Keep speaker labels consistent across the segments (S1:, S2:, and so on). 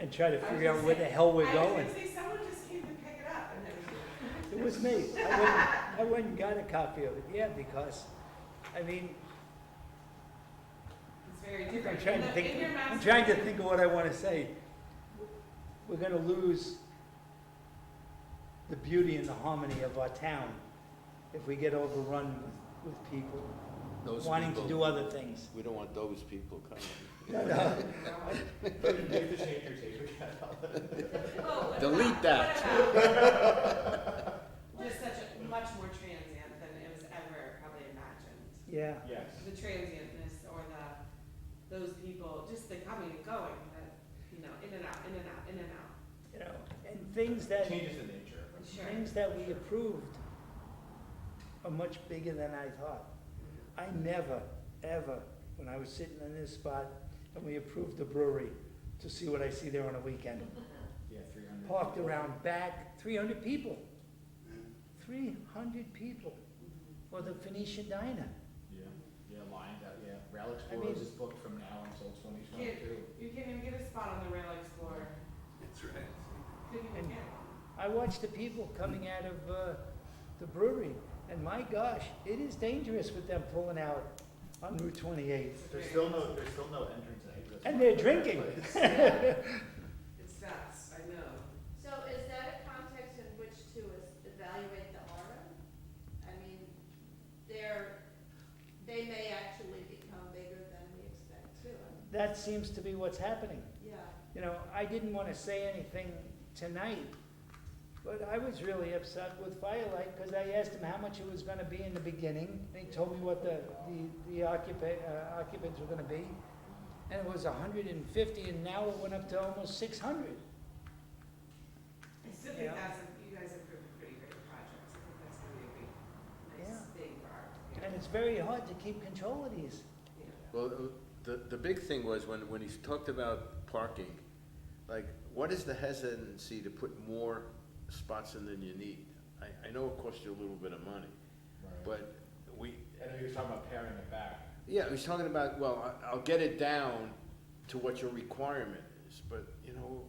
S1: and try to figure out where the hell we're
S2: I
S1: going.
S2: was gonna say, someone just came to pick it up and then.
S1: It was me. I went, I went and got a copy of it, yeah, because, I mean,
S2: It's very
S1: I'm
S2: different.
S1: trying
S2: In
S1: to
S2: the-
S1: think,
S2: in your
S1: I'm
S2: master
S1: trying to
S2: plan-
S1: think of what I wanna say. We're gonna lose the beauty and the harmony of our town if we get overrun with, with people
S3: Those
S1: wanting to
S3: people-
S1: do other things.
S3: We don't want those people coming.
S2: Oh, what
S3: Delete
S2: about-
S3: that.
S2: what about- Just such a, much more transient than it was ever probably imagined.
S1: Yeah,
S4: Yes.
S2: The transientness or the, those people, just the coming and going, the, you know, in and out, in and out, in and out.
S1: you know, and things that,
S4: Changes the nature.
S2: Sure.
S1: things that we approved are much bigger than I thought. I never, ever, when I was sitting in this spot and we approved the brewery, to see what I see there on a weekend.
S4: Yeah, three hundred.
S1: Parked around back, three hundred people. Three hundred people for the Phoenician Diner.
S4: Yeah, yeah, lined up, yeah. Rail
S1: mean-
S4: Explorers is booked from now until twenty twenty-two.
S2: Can't- You can't even get a spot on the Rail Explorer. That's right. Couldn't even
S1: And-
S2: get one.
S1: I watched the people coming out of, uh, the brewery, and my gosh, it is dangerous with them pulling out on Route twenty-eight.
S4: There's still no, there's still no entrance exit.
S1: And they're drinking.
S2: It's fast, I know.
S5: So is that a context in which to es- evaluate the aura? I mean, they're, they may actually become bigger than we expect too.
S1: That seems to be what's happening.
S5: Yeah.
S1: You know, I didn't wanna say anything tonight, but I was really upset with Firelight, cause I asked him how much it was gonna be in the beginning, and he told me what the, the, the occupa- uh, occupants were gonna be. And it was hundred and fifty, and now it went up to almost six hundred.
S2: I still think
S1: Yeah.
S2: that's, a- you guys have proven pretty great projects, I think that's gonna be a big, nice
S1: Yeah.
S2: thing for our.
S1: And it's very hard to keep control of these.
S2: Yeah.
S3: Well, uh, the, the big thing was when, when he talked about parking, like, what is the hesitancy to put more spots in than you need? I, I know it costs you a little bit of money, but we,
S4: I know you're talking about paring it back.
S3: yeah, he's talking about, well, I- I'll get it down to what your requirement is, but, you know,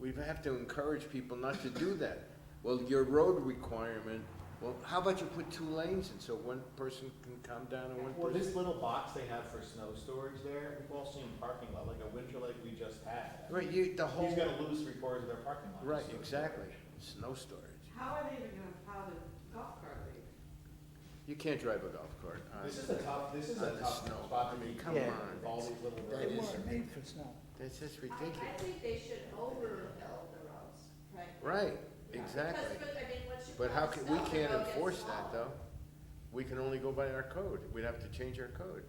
S3: we have to encourage people not to do that. Well, your road requirement, well, how about you put two lanes in so one person can come down and one
S4: Well,
S3: person?
S4: this little box they have for snow storage there, we've all seen parking lot, like a winter like we just had.
S3: Right, you, the whole.
S4: He's gonna lose three quarters of their parking lot.
S3: Right,
S4: So-
S3: exactly. Snow storage.
S2: How are they even gonna plow the golf cart lane?
S3: You can't drive a golf cart. uh, on-
S4: This is a tough, this is a
S3: On the
S4: tough
S3: snow.
S4: spot
S3: I
S4: to
S3: mean,
S4: be,
S3: come
S1: Yeah.
S3: on.
S4: with all these little
S3: That
S1: They
S3: is-
S4: roads.
S1: weren't made for snow.
S3: That's just
S5: I, I
S3: ridiculous.
S5: think they should overbuild the roads, right?
S3: Right,
S2: Yeah.
S3: exactly.
S5: Because, but, I mean, once you.
S3: But
S5: put
S3: how
S5: the
S3: can, we
S5: snow, the
S3: can't
S5: road gets
S3: enforce that
S5: smaller.
S3: though. We can only go by our code. We'd have to change our code.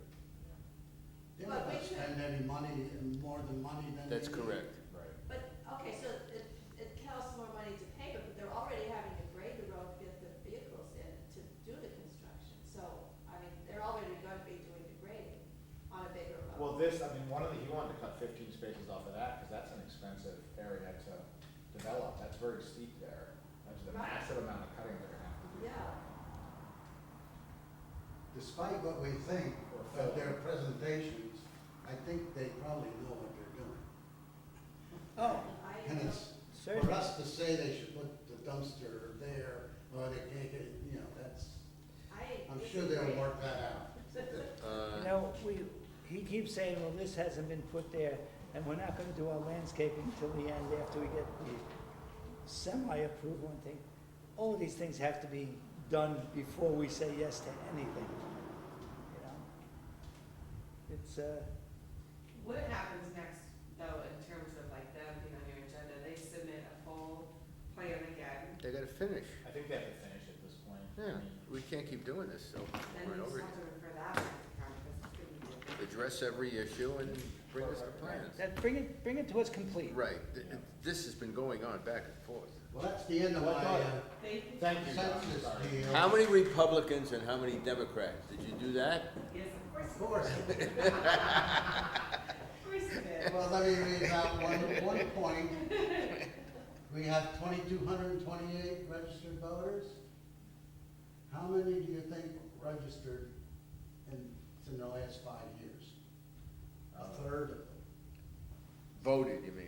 S6: They're not gonna spend any money, and more than money than they
S3: That's
S6: need.
S3: correct.
S4: Right.
S5: But, okay, so it, it costs more money to pave it, but they're already having to grade the road to get the vehicles in to do the construction. So, I mean, they're already gonna be doing the grading on a bigger road.
S4: Well, this, I mean, one of the, he wanted to cut fifteen spaces off of that, cause that's an expensive area to develop, that's very steep there. That's a
S5: Right.
S4: massive amount of cutting they're gonna have to do.
S5: Yeah,
S6: Despite what we think of their presentations, I think they probably know what they're doing.
S1: Oh,
S5: I,
S6: And it's, for
S1: certainly.
S6: us to say they should put the dumpster there, or they can't get, you know, that's,
S5: I.
S6: I'm sure they'll work that out.
S1: You
S3: Uh,
S1: know, we, he keeps saying, well, this hasn't been put there, and we're not gonna do our landscaping till the end after we get the semi-approval and thing. All of these things have to be done before we say yes to anything, you know? It's, uh,
S2: What happens next, though, in terms of like them being on your agenda, they submit a full plan again,
S3: They gotta finish.
S4: I think they have to finish at this point. I
S3: Yeah,
S4: mean,
S3: we can't keep doing this, so
S2: then
S3: we're
S2: you just
S3: over
S2: have
S3: it.
S2: to refer that back to count, because it's gonna be. a big-
S3: Address every issue and bring us the plans.
S1: that, bring it, bring it to us complete.
S3: Right, Th- this has been going on back and forth.
S6: Well, that's the end of my
S4: Well, I thought-
S6: uh,
S2: Thank you.
S4: Thank you, John,
S6: census
S4: sorry.
S6: deal.
S3: How many Republicans and how many Democrats? Did you do that?
S2: Yes, of course.
S6: Of uh, course.
S2: Of course it is.
S6: Well, let me read out one, one point. We have twenty-two hundred and twenty-eight registered voters. How many do you think registered in, in the last five years? A third of them.
S3: Voted, you mean?